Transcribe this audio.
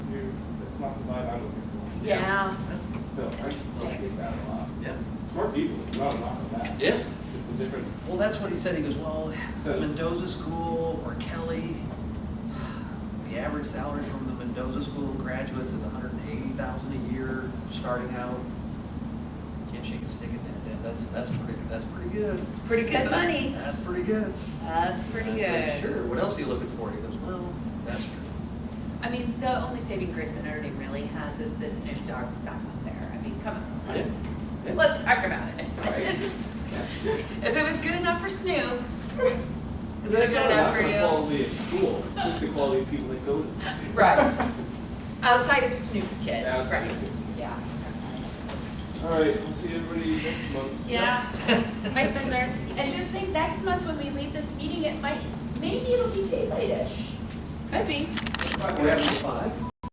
not wrong with that. Yeah. Just a different, Well, that's what he said. He goes, well, So- Mendoza School or Kelly, the average salary from the Mendoza School graduates is hundred and eighty thousand a year starting out. Can't shake a stick at that, Dad. That's, that's pretty, that's pretty good. It's pretty good money. That's pretty good. That's pretty I said, good. Sure. What else are you looking for? He goes, well, that's true. I mean, the only saving grace that Notre Dame really has is that Snoop Dogg sat up there. I mean, come on, Yeah. let's, Yeah. let's talk about it. Right. If it was good enough for Snoop, It's is it good not enough for the you? Quality of school, just the quality of people that go to. the school. Right. Outside of Snoop's kid, Outside right, of Snoop. yeah. All right, we'll see everybody next month. Hi Spencer. And just think, next month when we leave this meeting, it might, maybe it'll be daylightish. Could be. We're having five.